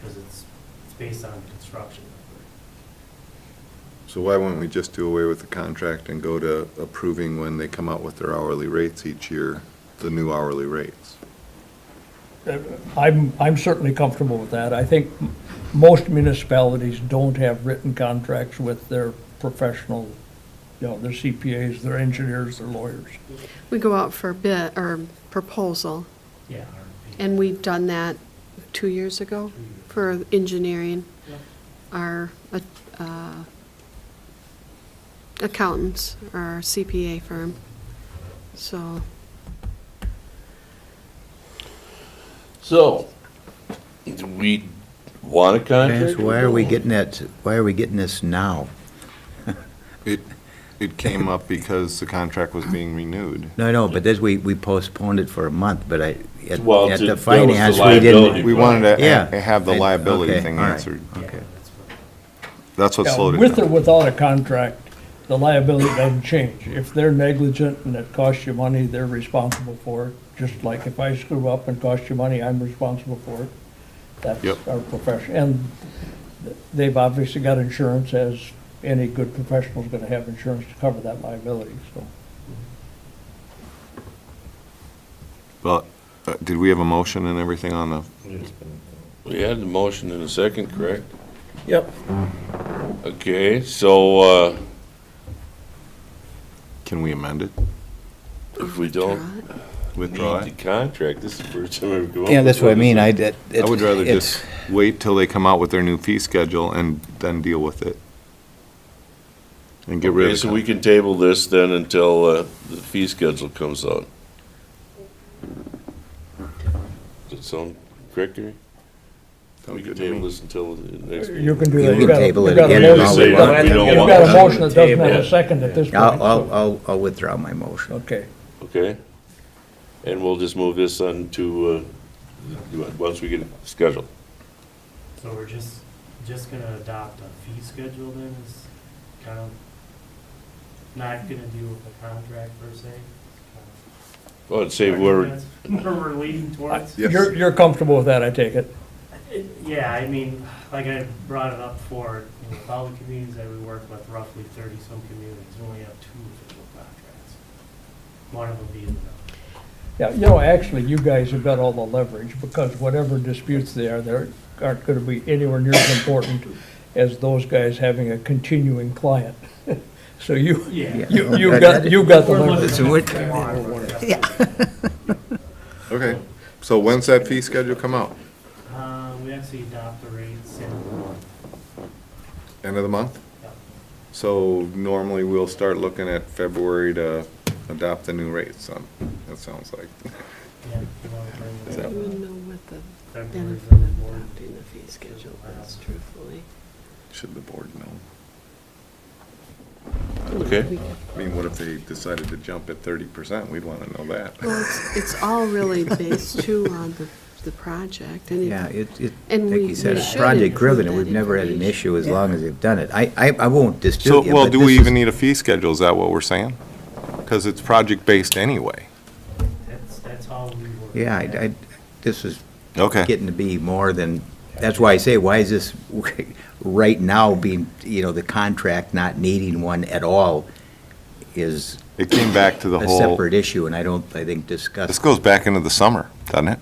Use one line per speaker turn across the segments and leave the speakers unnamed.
because it's, it's based on construction.
So why wouldn't we just do away with the contract and go to approving when they come out with their hourly rates each year, the new hourly rates?
Uh, I'm, I'm certainly comfortable with that. I think m- most municipalities don't have written contracts with their professional, you know, their CPAs, their engineers, their lawyers.
We go out for bid, or proposal,
Yeah. RFP.
and we've done that two years ago for engineering.
Yep.
Our uh, accountants, our CPA firm, so.
So, do we want a contract?
Vance, why are we getting that, why are we getting this now?
It, it came up because the contract was being renewed.
No, no, but this, we, we postponed it for a month, but I, at,
Well,
at
to- that
the
was the
finance, we
liability.
didn't.
We wanted to
Yeah.
a- have the
I-
liability
okay,
thing
all right.
answered.
Yeah,
Okay.
that's what-
That's what
Now,
slowed it
With or
down.
without a contract, the liability doesn't change. If they're negligent and it costs you money, they're responsible for it. Just like if I screw up and cost you money, I'm responsible for it. That's
Yep.
our profession. And they've obviously got insurance, as any good professional's gonna have insurance to cover that liability, so.
But, uh, did we have a motion and everything on the,
We had the motion in a second, correct?
Yep.
Okay, so, uh,
can we amend it?
if we don't
Withdraw
need the
it?
contract, this is the first time I've come up
Yeah, that's
with
what I
one.
mean, I, that- it-
I would rather
it's-
just wait till they come out with their new fee schedule and then deal with it. And get rid
Okay,
of
so we
it.
can table this then until, uh, the fee schedule comes out. Does that sound correct, Gary? We can table this until the next meeting.
You can do
You
that.
can
You've got a-
table it
you've got a
again and
motion-
all we
you've got-
want. We don't
You've
want
got a
that.
motion that doesn't have
Table
a
it.
second at this point.
I'll, I'll,
so-
I'll- I'll withdraw my motion.
Okay,
Okay? And we'll just move this on to, uh, once we get it scheduled.
So we're just, just gonna adopt a fee schedule then, is kind of not gonna deal with the contract per se.
Well, I'd say we're,
That's Where we're leading towards. Uh,
Yes.
you're, you're comfortable with that, I take it?
Yeah, I mean, like I brought it up for, you know, with all the communities that we work with, roughly thirty-some communities, we only have two official contracts. One of them being the,
Yeah, you know, actually, you guys have got all the leverage, because whatever disputes there, there aren't gonna be anywhere near as important as those guys having a continuing client. So you,
yeah.
you, you got, you got the
We're
leverage.
looking
what-
at more.
Okay, so when's that fee schedule come out?
Uh, we actually adopt the rates and,
End of the month?
yeah,
So normally we'll start looking at February to adopt the new rates, um, that sounds like.
yeah, we wanna bring
Is
it
that-
up.
You would know what the
February's
benefit
on the
of
board. Uh,
adopting the fee schedule is, truthfully.
Should the board know?
Okay.
We-
I mean, what if they decided to jump at thirty percent? We'd wanna know that.
Well, it's, it's all really based too on the, the project, and
Yeah,
if,
it, it,
And
like
we-
you said,
we
it's
should
project
include
driven,
that
and we've never had an
information.
issue as long as they've done it. I, I, I won't
So,
dispute you,
well,
but
do
this
we
is-
even need a fee schedule, is that what we're saying? Cause it's project-based anyway.
That's, that's how we work.
Yeah, I, I, this is
Okay.
getting to be more than, that's why I say, why is this right now being, you know, the contract not needing one at all is
It came back to the
a
whole,
separate issue, and I don't, I think,
this
discussed.
goes back into the summer, doesn't it?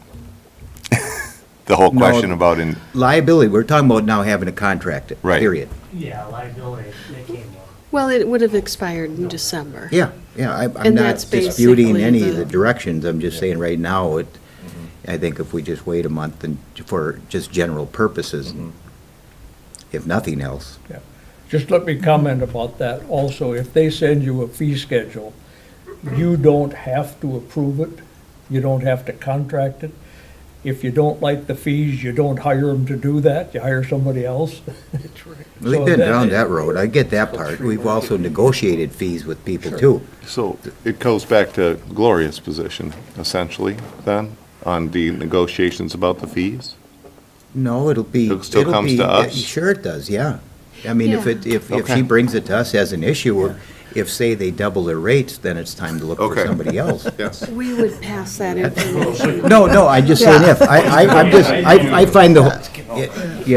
The whole
No.
question about in,
Liability, we're talking about now having a contract,
Right.
period.
Yeah, liability, that came up.
well, it would have expired in December.
Yeah, yeah, I- I'm
And that's
not disputing
basically
any of
the-
the directions, I'm just saying right now, it,
Mm-hmm.
I think if we just wait a month and for just general purposes,
Mm-hmm.
if nothing else.
Just let me comment about that also. If they send you a fee schedule, you don't have to approve it. You don't have to contract it. If you don't like the fees, you don't hire them to do that. You hire somebody else.
We've
So
been
that-
down that road, I get that part. We've also
Mm-hmm.
negotiated fees with people too.
So it goes back to Gloria's position, essentially, then, on the negotiations about the fees?
No, it'll be.
It still
it'll
comes
be-
to us?
Sure it does, yeah. I mean, if
Yeah.
it, if, if she
Okay.
brings it to us as an issue, we're- If, say, they double their rates, then it's time to look for
Okay.
somebody else.
Yes.
We would pass that information.
No, no, I'm just saying if. I, I, I'm just, I, I find the, whole- yeah,